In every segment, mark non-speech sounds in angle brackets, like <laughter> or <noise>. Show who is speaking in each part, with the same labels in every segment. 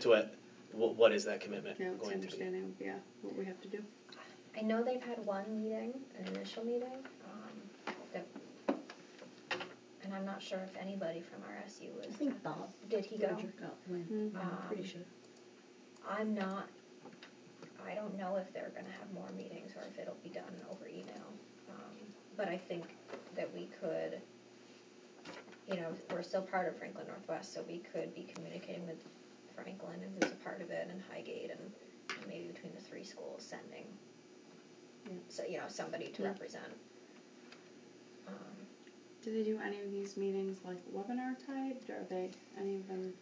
Speaker 1: to it, wh- what is that commitment
Speaker 2: Now it's
Speaker 1: going to be?
Speaker 2: understanding, of, yeah, what we have to do.
Speaker 3: I know they've had one meeting, an initial meeting, um, that, and I'm not sure if anybody from RSU was.
Speaker 4: I think
Speaker 3: at
Speaker 4: Bob.
Speaker 3: that. Did he go?
Speaker 4: Roger got one.
Speaker 2: Mhm.
Speaker 4: I'm pretty sure.
Speaker 3: I'm not, I don't know if they're gonna have more meetings or if it'll be done over email. Um, But I think that we could, you know, we're still part of Franklin Northwest, so we could be communicating with Franklin and who's a part of it and Highgate and and maybe between the three schools sending,
Speaker 4: Yeah.
Speaker 3: so, you know, somebody to
Speaker 2: Yeah.
Speaker 3: represent. Um,
Speaker 2: Do they do any of these meetings like webinar typed? Are they any of them?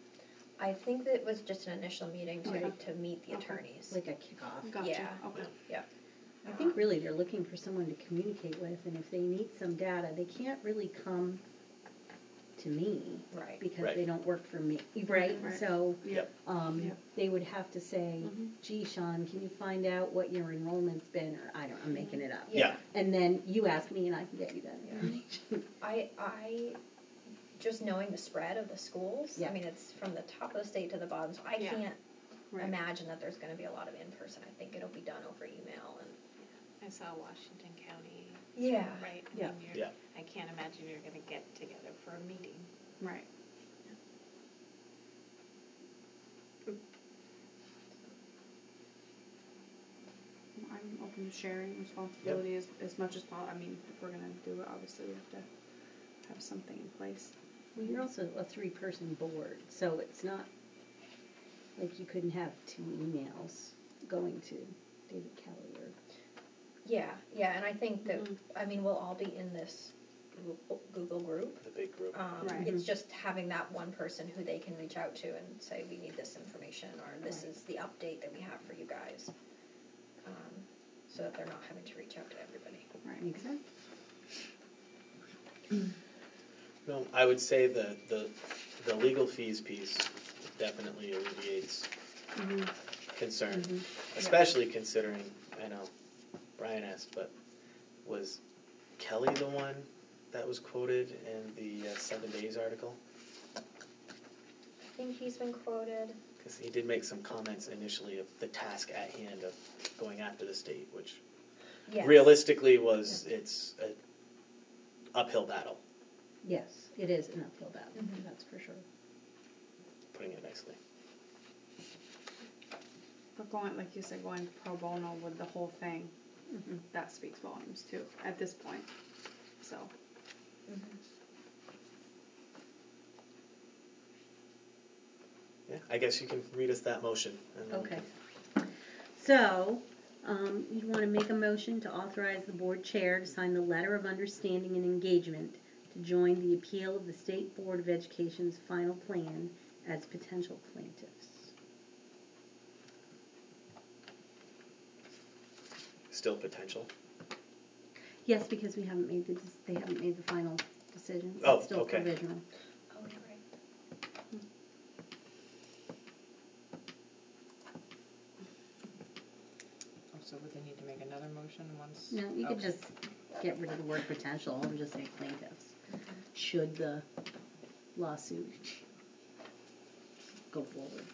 Speaker 3: I think that it was just an initial meeting to,
Speaker 2: Okay.
Speaker 3: to meet the
Speaker 2: Okay.
Speaker 3: attorneys.
Speaker 4: Oh, Like a kickoff.
Speaker 2: Gotcha.
Speaker 3: Yeah.
Speaker 2: Okay.
Speaker 3: Yep.
Speaker 4: I think really they're looking for someone to communicate with, and if they need some data, they can't really come to me
Speaker 3: Right.
Speaker 4: because
Speaker 1: Right.
Speaker 4: they don't work for me, right?
Speaker 2: Right.
Speaker 4: So
Speaker 1: Yep.
Speaker 4: um,
Speaker 2: Yep.
Speaker 4: they would have to say,
Speaker 2: Mhm.
Speaker 4: "Gee, Sean, can you find out what your enrollment's been?" Or I don't, I'm making it up.
Speaker 1: Yeah.
Speaker 4: And then you ask me, and I can get you that information.
Speaker 3: I I just knowing the spread of the schools.
Speaker 4: Yeah.
Speaker 3: I mean, it's from the top of the state to the bottom. So I
Speaker 2: Yeah.
Speaker 3: can't
Speaker 2: Right.
Speaker 3: imagine that there's going to be a lot of in person. I think it'll be done over email and
Speaker 5: I saw Washington County,
Speaker 3: yeah,
Speaker 5: right? I
Speaker 4: Yeah.
Speaker 5: mean, you're-
Speaker 1: Yeah.
Speaker 5: I can't imagine you're gonna get together for a meeting.
Speaker 2: Right. Well, I'm open to sharing responsibility as, as much as possible. I mean, if we're gonna do it, obviously we have to have something in place.
Speaker 4: Well, you're also a three-person board, so it's not like you couldn't have two emails going to David Kelly or
Speaker 3: yeah, yeah. And I think that
Speaker 2: Mhm.
Speaker 3: I mean we'll all be in this Google- Google group.
Speaker 1: The big group.
Speaker 3: Um,
Speaker 2: Right. Mm-hmm.
Speaker 3: It's just having that one person who they can reach out to and say we need this information or this
Speaker 4: Right.
Speaker 3: is the update that we have for you guys, um, so that they're not having to reach out to everybody.
Speaker 2: Right.
Speaker 4: Makes sense.
Speaker 1: No, I would say the, the, the legal fees piece definitely alleviates
Speaker 2: Mhm.
Speaker 1: concern,
Speaker 4: Mhm.
Speaker 1: especially considering, I know Brian asked, but was Kelly the one that was quoted in the uh, Seven Days article?
Speaker 3: I think he's been quoted.
Speaker 1: Because he did make some comments initially of the task at hand of going after the state, which
Speaker 3: Yes.
Speaker 1: realistically was it's an uphill battle,
Speaker 4: Yes, it is an uphill battle.
Speaker 3: Mhm.
Speaker 4: That's for sure.
Speaker 1: putting it nicely.
Speaker 2: But going, like you said, going pro bono with the whole thing,
Speaker 4: Mhm.
Speaker 2: that speaks volumes too, at this point, so.
Speaker 3: Mm-hmm.
Speaker 1: Yeah, I guess you can read us that motion. And then we
Speaker 4: Okay.
Speaker 1: can-
Speaker 4: So, um, you want to make a motion to authorize the board chair to sign the letter of understanding and engagement to join the appeal of the State Board of Education's final plan as potential plaintiffs.
Speaker 1: Still potential.
Speaker 4: Yes, because we haven't made the dec- they haven't made the final decision.
Speaker 1: Oh,
Speaker 4: it's still
Speaker 1: okay.
Speaker 4: provisional.
Speaker 3: Oh, yeah, right.
Speaker 5: Oh, So would they need to make another motion once?
Speaker 4: No, you could just get rid of the word potential and just say plaintiffs. Should the lawsuit go forward?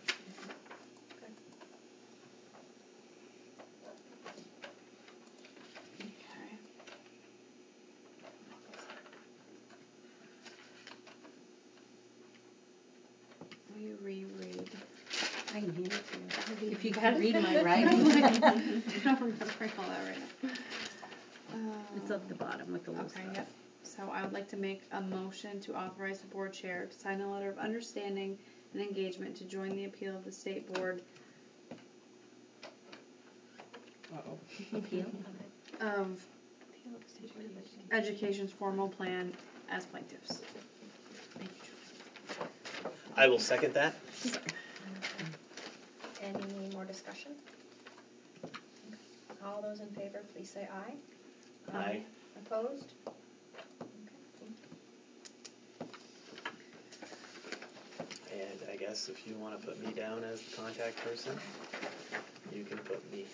Speaker 2: Okay. Will you reread?
Speaker 4: <laughs>
Speaker 2: <laughs>
Speaker 4: I can hand it to you. If you
Speaker 2: Got
Speaker 4: can
Speaker 2: it?
Speaker 4: read my writing.
Speaker 2: I don't remember all that right now. Um,
Speaker 4: It's at the bottom with the little
Speaker 2: Okay,
Speaker 4: stuff.
Speaker 2: yep. So I would like to make a motion to authorize the board chair to sign a letter of understanding and engagement to join the appeal of the state board
Speaker 5: Uh-oh.
Speaker 4: Appeal?
Speaker 2: of education's formal plan as plaintiffs.
Speaker 1: I will second that.
Speaker 3: Any more discussion? All those in favor, please say aye.
Speaker 1: Aye.
Speaker 3: Opposed? Okay, thank you.
Speaker 1: And I guess if you want to put me down as the contact person, you can put me.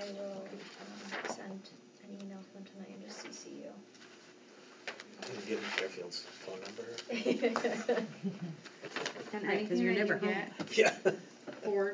Speaker 3: I will um, send an email to them tonight and just CC
Speaker 1: I'm gonna give him Fairfield's phone number.
Speaker 3: you.
Speaker 2: And
Speaker 4: Right,
Speaker 2: anything
Speaker 4: 'cause you're
Speaker 2: that you
Speaker 4: never home.
Speaker 1: <laughs>
Speaker 2: get,
Speaker 1: Yeah.
Speaker 2: for